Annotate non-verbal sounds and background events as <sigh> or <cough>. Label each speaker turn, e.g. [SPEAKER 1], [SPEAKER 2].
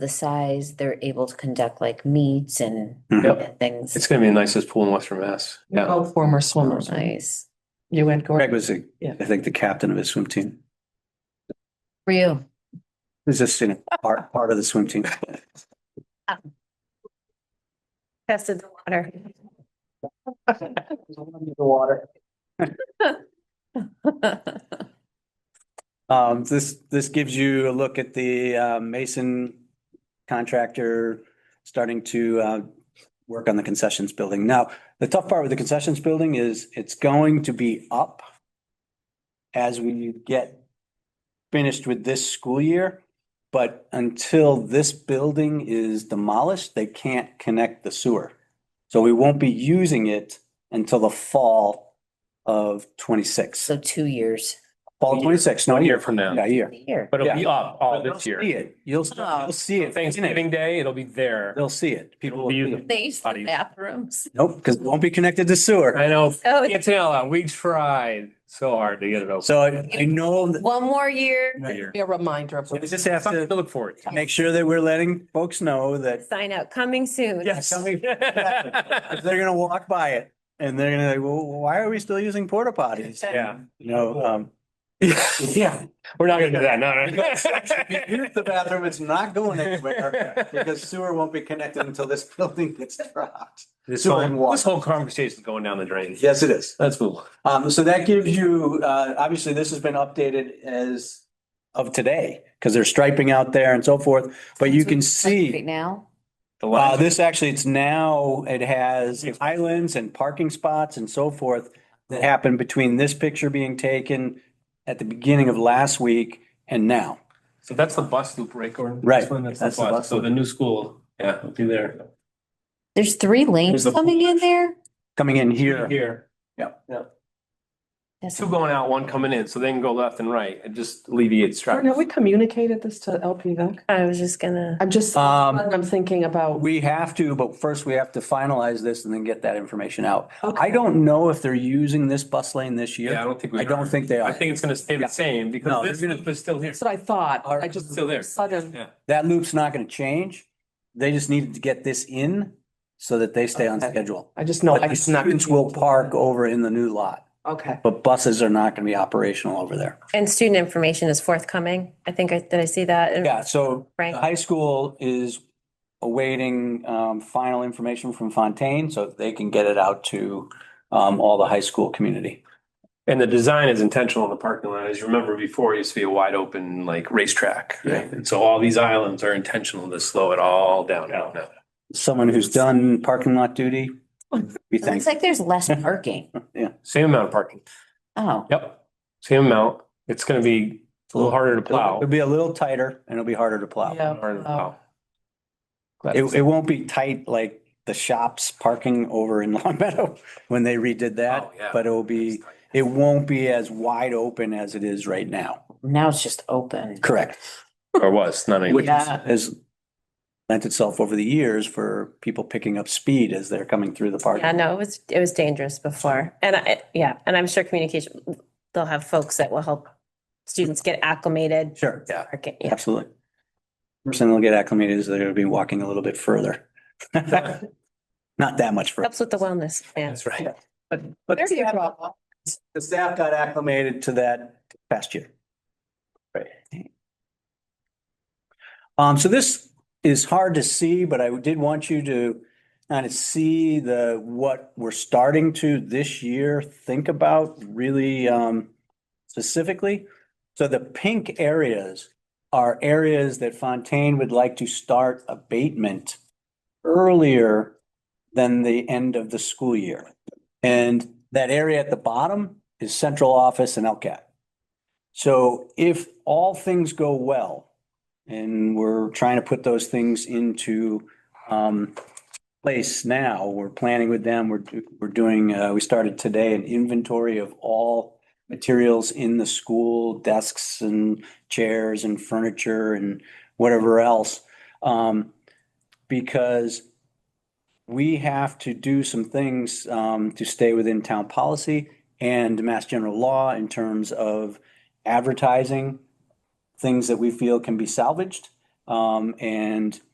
[SPEAKER 1] the size, they're able to conduct like meets and
[SPEAKER 2] Mhm.
[SPEAKER 1] and things. Oh,
[SPEAKER 2] It's gonna be the nicest pool in Western Mass.
[SPEAKER 3] Oh,
[SPEAKER 2] Yeah.
[SPEAKER 4] Both Oh, former swimmers.
[SPEAKER 1] Nice.
[SPEAKER 4] You and
[SPEAKER 5] Greg
[SPEAKER 4] Gordon.
[SPEAKER 5] was, the-
[SPEAKER 4] Yeah.
[SPEAKER 5] I think, the captain of his swim team.
[SPEAKER 1] For you.
[SPEAKER 5] He's just in part, part of the swim team.
[SPEAKER 6] tested
[SPEAKER 1] <laughs>
[SPEAKER 6] the water.
[SPEAKER 5] Um, this, this gives you a look at the, uh, Mason contractor starting to, uh, work on the concessions building. Now, the tough part with the concessions building is it's going to be up as we get finished with this school year. But until this building is demolished, they can't connect the sewer. So we won't be using it until the fall of twenty-six,
[SPEAKER 1] So two years.
[SPEAKER 5] fall of twenty-six, no,
[SPEAKER 2] One year
[SPEAKER 5] year,
[SPEAKER 2] from now.
[SPEAKER 5] yeah, a year.
[SPEAKER 1] Here.
[SPEAKER 3] But it'll be up all
[SPEAKER 5] But they'll
[SPEAKER 3] this year.
[SPEAKER 5] See it. You'll, s-
[SPEAKER 1] Oh.
[SPEAKER 5] you'll see it.
[SPEAKER 3] Thanksgiving Day, it'll be there.
[SPEAKER 5] They'll see it. People
[SPEAKER 3] It'll
[SPEAKER 5] will
[SPEAKER 3] be
[SPEAKER 5] see
[SPEAKER 3] in
[SPEAKER 5] it.
[SPEAKER 1] They used to
[SPEAKER 3] Bodies.
[SPEAKER 1] bathrooms.
[SPEAKER 5] Nope, because it won't be connected to sewer.
[SPEAKER 3] I know,
[SPEAKER 6] Oh, it's-
[SPEAKER 3] Antonella, we tried so hard to get it open.
[SPEAKER 5] So I I know, that-
[SPEAKER 1] One more year.
[SPEAKER 3] Year.
[SPEAKER 4] Be a reminder of.
[SPEAKER 5] so we just have
[SPEAKER 3] Something to
[SPEAKER 5] to
[SPEAKER 3] look forward to.
[SPEAKER 5] make sure that we're letting folks know that
[SPEAKER 6] sign up, coming soon.
[SPEAKER 3] Yes.
[SPEAKER 5] if they're gonna walk by it and they're gonna, like, well, why are we still using porta potties?
[SPEAKER 3] Yeah.
[SPEAKER 5] You know, um.
[SPEAKER 3] <laughs> Yeah, we're not gonna do that, no,
[SPEAKER 5] If you
[SPEAKER 3] <laughs> no.
[SPEAKER 5] use the bathroom, it's not going anywhere because sewer won't be connected until this <laughs> building gets dropped.
[SPEAKER 3] This
[SPEAKER 5] Sewer and
[SPEAKER 3] whole,
[SPEAKER 5] water.
[SPEAKER 3] this whole conversation is going down the drain.
[SPEAKER 5] Yes, it is.
[SPEAKER 3] That's cool.
[SPEAKER 5] Um, so that gives you, uh, obviously this has been updated as of today, because they're striping out there and so forth, but you can
[SPEAKER 1] Right
[SPEAKER 5] see,
[SPEAKER 1] now.
[SPEAKER 3] The
[SPEAKER 5] uh,
[SPEAKER 3] last-
[SPEAKER 5] this actually, it's now, it has islands and parking spots and so forth that happened between this picture being taken at the beginning of last week and now.
[SPEAKER 3] So that's the bus loop, right, Gordon?
[SPEAKER 5] Right.
[SPEAKER 3] This one, That's
[SPEAKER 5] That's
[SPEAKER 3] the
[SPEAKER 5] the bus
[SPEAKER 3] bus, so
[SPEAKER 5] loop.
[SPEAKER 3] the new school, yeah, it'll be there.
[SPEAKER 1] There's three lanes
[SPEAKER 3] There's the-
[SPEAKER 1] coming in there.
[SPEAKER 5] Coming in here,
[SPEAKER 3] Here.
[SPEAKER 5] Yep.
[SPEAKER 3] Yep.
[SPEAKER 1] That's-
[SPEAKER 3] Two going out, one coming in, so they can go left and right, it just alleviates
[SPEAKER 4] Gordon, have we
[SPEAKER 3] traffic.
[SPEAKER 4] communicated this to LPVAC?
[SPEAKER 6] I was just gonna,
[SPEAKER 4] I'm just,
[SPEAKER 5] Um,
[SPEAKER 4] I'm thinking about.
[SPEAKER 5] we have to, but first we have to finalize this and then get that information out.
[SPEAKER 4] Okay.
[SPEAKER 5] I don't know if they're using this bus lane this year.
[SPEAKER 3] Yeah, I don't think we.
[SPEAKER 5] I don't
[SPEAKER 3] are.
[SPEAKER 5] think they are.
[SPEAKER 3] I think it's gonna stay
[SPEAKER 5] Yeah.
[SPEAKER 3] the same
[SPEAKER 5] No,
[SPEAKER 3] because this
[SPEAKER 5] they're gonna-
[SPEAKER 3] loop is still here.
[SPEAKER 4] That's what I thought.
[SPEAKER 5] Our-
[SPEAKER 4] I just.
[SPEAKER 3] Still there.
[SPEAKER 4] Sudden.
[SPEAKER 3] Yeah.
[SPEAKER 5] That loop's not gonna change. They just needed to get this in so that they stay on
[SPEAKER 4] Okay.
[SPEAKER 5] schedule.
[SPEAKER 4] I just know.
[SPEAKER 5] But
[SPEAKER 4] I
[SPEAKER 5] the
[SPEAKER 4] just not-
[SPEAKER 5] Students will park over in the new lot,
[SPEAKER 4] Okay.
[SPEAKER 5] but buses are not gonna be operational over there.
[SPEAKER 6] and student information is forthcoming. I think I, did I see that? in
[SPEAKER 5] Yeah, so the
[SPEAKER 6] Frank?
[SPEAKER 5] high school is awaiting um final information from Fontaine so that they can get it out to um all the high school community.
[SPEAKER 3] And the design is intentional in the parking lot. As you remember before, it used to be a wide open like racetrack. Right. And so all these islands are intentional to slow it all down now. now.
[SPEAKER 5] Someone who's done parking lot duty,
[SPEAKER 3] <laughs>
[SPEAKER 5] we
[SPEAKER 1] It looks
[SPEAKER 5] thank.
[SPEAKER 1] like there's less parking.
[SPEAKER 3] Same amount of parking.
[SPEAKER 1] Oh,
[SPEAKER 3] Yep. Same amount. It's gonna be a little harder to plow.
[SPEAKER 5] It'll be uh, a little tighter and it'll be harder to plow.
[SPEAKER 4] Yeah.
[SPEAKER 3] Harder to plow.
[SPEAKER 5] It, it won't be tight like the shops parking over in <laughs> Long Meadow when they redid that,
[SPEAKER 3] Oh, yeah.
[SPEAKER 5] but it'll be, it won't be as wide open as it is right now.
[SPEAKER 1] now it's just open.
[SPEAKER 5] Correct.
[SPEAKER 3] Or was, not
[SPEAKER 5] Which
[SPEAKER 3] anymore.
[SPEAKER 1] Yeah.
[SPEAKER 5] has lent itself over the years for people picking up speed as they're coming through the park.
[SPEAKER 6] Yeah, no, it was, it was dangerous before. And I, yeah, and I'm sure communication, they'll have folks that will help students get acclimated.
[SPEAKER 5] Sure, yeah,
[SPEAKER 6] Okay, yeah.
[SPEAKER 5] absolutely. First thing they'll get acclimated is they're gonna be walking a little bit further. <laughs> Not that much further.
[SPEAKER 6] Helps with the wellness plan.
[SPEAKER 3] That's right.
[SPEAKER 5] But, but
[SPEAKER 4] There's your problem.
[SPEAKER 5] the staff got acclimated to that past year.
[SPEAKER 3] Right.
[SPEAKER 5] Um, so this is hard to see, but I did want you to kind of see the, what we're starting to this year think about really, um, specifically. So the pink areas are areas that Fontaine would like to start abatement earlier than the end of the school year. And that area at the bottom is central office and LCAT. So if all things go well, and we're trying to put those things into um, place now, we're planning with them, we're, do- we're doing, uh, we started today an inventory of all materials in the school, desks and chairs and furniture and whatever else. Um, Because we have to do some things um, to stay within town policy and mass general law in terms of advertising things that we feel can be salvaged um, Um, and